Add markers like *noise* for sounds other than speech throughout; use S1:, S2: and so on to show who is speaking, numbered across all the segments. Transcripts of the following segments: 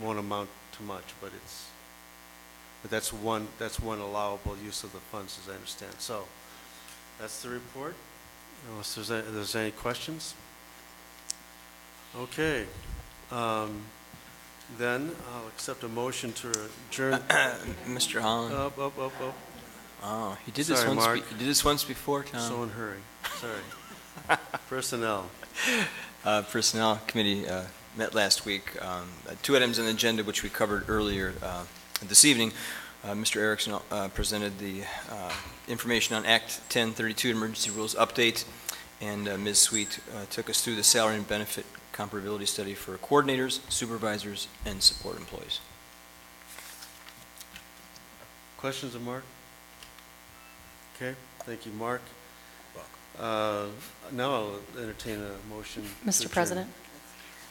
S1: won't amount to much, but it's, but that's one, that's one allowable use of the funds, as I understand. So, that's the report, unless there's, a- there's any questions? Okay, um, then I'll accept a motion to adjourn.
S2: Mr. Holland.
S1: Up, up, up, up.
S2: Oh, he did this
S1: Uh, sorry,
S2: once, be-
S1: Mark.
S2: he did this once before, Tom.
S1: So uh, in hurry, sorry. *laughs* Personnel.
S2: Uh, Personnel Committee uh, met last week. Um, uh, Two items on the agenda which we covered earlier uh, this evening. Uh, Mr. Erickson uh, presented the uh, information on Act 1032 Emergency Rules Update, and uh, Ms. Sweet uh, took us through the salary and benefit comparability study for coordinators, supervisors, and support employees.
S1: Questions of Mark? Okay, thank you, Mark. Uh, Now I'll entertain a motion. to
S3: Mr.
S1: adjourn.
S3: President,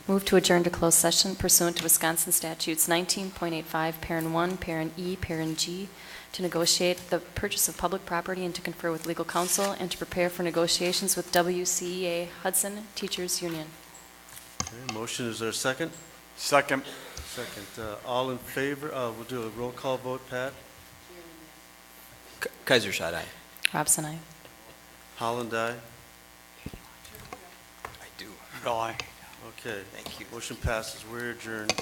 S3: move to adjourn to closed session pursuant to Wisconsin statutes 19.85, parent 1, parent E, parent G, to negotiate the purchase of public property and to confer with legal counsel and to prepare for negotiations with WCEA Hudson Teachers Union.
S1: Okay, Motion, is there a second?
S4: Second.
S1: Second. Uh, All in favor, uh, we'll do a roll call vote, Pat.
S2: K- Kaiser shot aye.
S3: Robson, I.
S1: Holland, aye.
S2: I do.
S4: Aye.
S1: Okay.
S2: Thank you.
S1: Motion passes, we're adjourned.